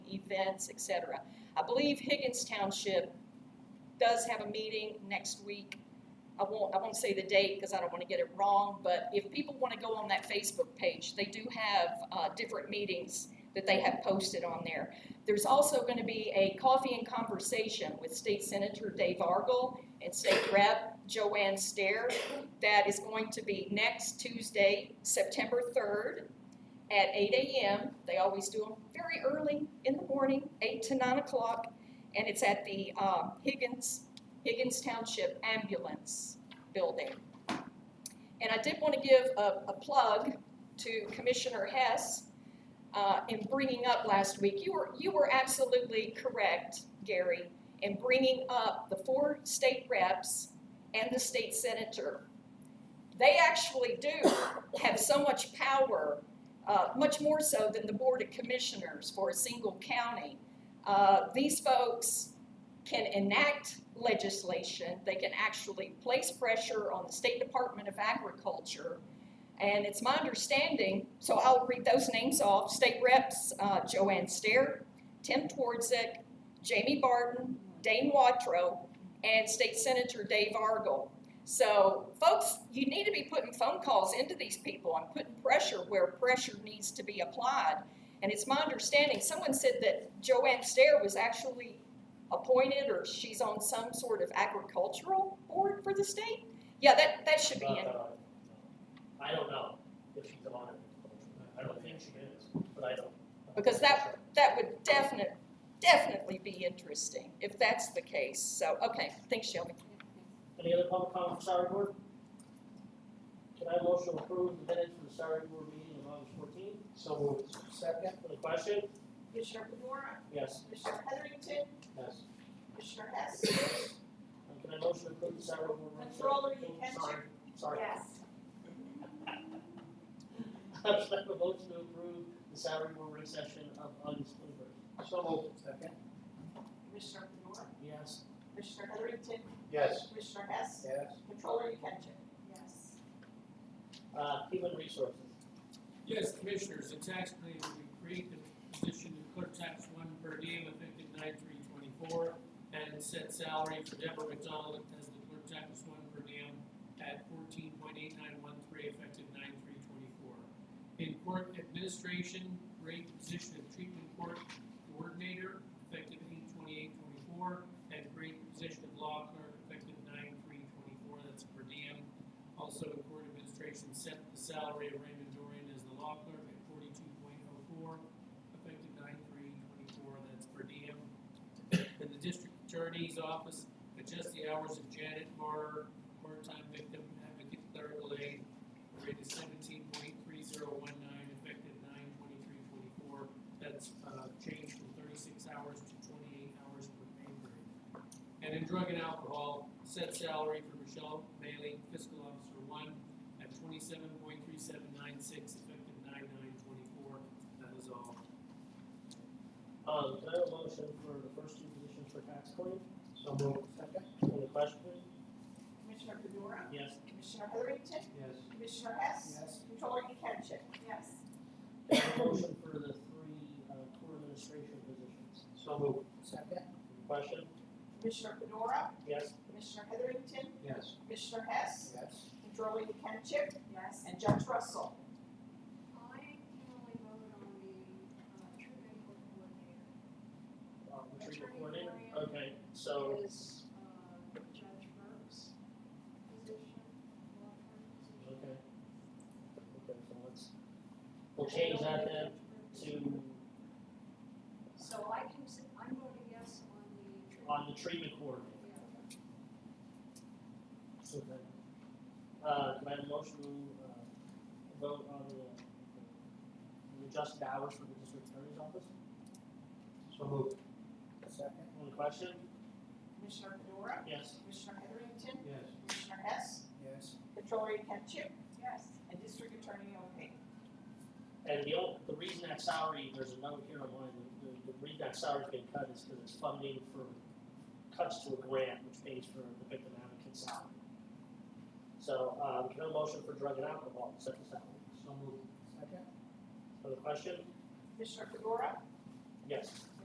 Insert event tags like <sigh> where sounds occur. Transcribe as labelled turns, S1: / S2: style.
S1: events, et cetera. I believe Higgins Township does have a meeting next week. I won't, I won't say the date because I don't want to get it wrong, but if people want to go on that Facebook page, they do have, uh, different meetings that they have posted on there. There's also going to be a coffee and conversation with State Senator Dave Argel and State Rep Joanne Stair. That is going to be next Tuesday, September third, at eight AM. They always do them very early in the morning, eight to nine o'clock, and it's at the uh, Higgins, Higgins Township Ambulance Building. And I did want to give a, a plug to Commissioner Hess uh, in bringing up last week. You were, you were absolutely correct, Gary, in bringing up the four state reps and the state senator. They actually do have so much power uh, much more so than the Board of Commissioners for a single county. Uh, These folks can enact legislation, they can actually place pressure on the State Department of Agriculture. And it's my understanding, so I'll read those names off, State Reps uh, Joanne Stair, Tim Twardzik, Jamie Barton, Dane Watrow, and State Senator Dave Argel. So, folks, you need to be putting phone calls into these people and putting pressure where pressure needs to be applied. And it's my understanding, someone said that Joanne Stair was actually appointed or she's on some sort of agricultural board for the state? Yeah, that, that should be
S2: Not
S1: in.
S2: that Um, I, I don't know if she's on it. I don't think she is, but I don't.
S1: Because that, that would definite, definitely be interesting if that's the case. So, okay, thanks Shelby.
S2: Any other public comment for salary board? Can I motion to approve the minutes for the salary board meeting on August fourteenth?
S3: So moved. Second?
S2: For the question?
S4: Commissioner Fedora,
S2: Yes.
S4: Commissioner Heatherington,
S3: Yes.
S4: Commissioner Hess.
S2: And can I motion to approve the salary board? minutes?
S4: Controller, you
S2: Oh,
S4: can
S2: Sorry, sorry.
S4: Yes.
S2: <laughs> I should have a motion to approve the salary board work session of August twenty-first.
S3: So moved. Second?
S4: Commissioner Fedora,
S2: Yes.
S4: Commissioner Heatherington,
S3: Yes.
S4: Commissioner Hess.
S3: Yes.
S4: Controller, you can Yes.
S2: Uh, human resources.
S5: Yes, Commissioners, the tax plan we create the position of clerk tax one per diem effective nine three twenty-four and set salary for Deborah McDonald as the clerk tax one per diem at fourteen point eight nine one three effective nine three twenty-four. In court administration, create the position of treatment court coordinator effective eight twenty-eight twenty-four and create the position of law clerk effective nine three twenty-four, that's per diem. Also, the court administration set the salary of Raymond Dorian as the law clerk at forty-two point oh four, effective nine three twenty-four, that's per diem. And the district attorney's office adjust the hours of Janet Barr, part-time victim advocate clerical aid, rate is seventeen point three zero one nine, effective nine twenty-three twenty-four. That's, uh, changed from thirty-six hours to twenty-eight hours per pay grade. And in drug and alcohol, set salary for Michelle Bailey, fiscal officer one, at twenty-seven point three seven nine six, effective nine nine twenty-four. That is all.
S2: Um, can I have a motion for the first two positions for tax claim?
S3: So moved. Second?
S2: Any question?
S4: Commissioner Fedora,
S2: Yes.
S4: Commissioner Heatherington,
S3: Yes.
S4: Commissioner Hess.
S3: Yes.
S4: Controller, you can Yes.
S2: Can I have a motion for the three, uh, court administration positions?
S3: So moved. Second?
S2: Any question?
S4: Commissioner Fedora,
S2: Yes.
S4: Commissioner Heatherington,
S3: Yes.
S4: Commissioner Hess.
S3: Yes.
S4: Controller, you can Yes. And Judge Russell.
S6: I can only vote on the uh, treatment court coordinator.
S2: Uh, retreat recording, okay, so,
S6: It is uh, Judge Burke's position, law
S2: okay.
S6: firm position.
S2: Okay, so let's, we'll change that then to,
S6: So I can, s- I'm voting yes on the treatment.
S2: on the treatment coordinator.
S6: Yeah.
S2: So then, uh, can I have a motion to, uh, vote on the, the adjusted hours for the district attorney's office?
S3: So moved. Second?
S2: Any question?
S4: Commissioner Fedora,
S2: Yes.
S4: Commissioner Heatherington,
S3: Yes.
S4: Commissioner Hess.
S3: Yes.
S4: Controller, you can
S6: Yes.
S4: And District Attorney O'Hagan.
S2: And the only, the reason that salary, there's a note here online, the, the, the reason that salary's been cut is because it's funding for cuts to a grant which pays for the victim advocate salary. So, um, can I have a motion for drug and alcohol, set the salary?
S3: So moved. Second?
S2: Other question?
S4: Commissioner Fedora,
S2: Yes.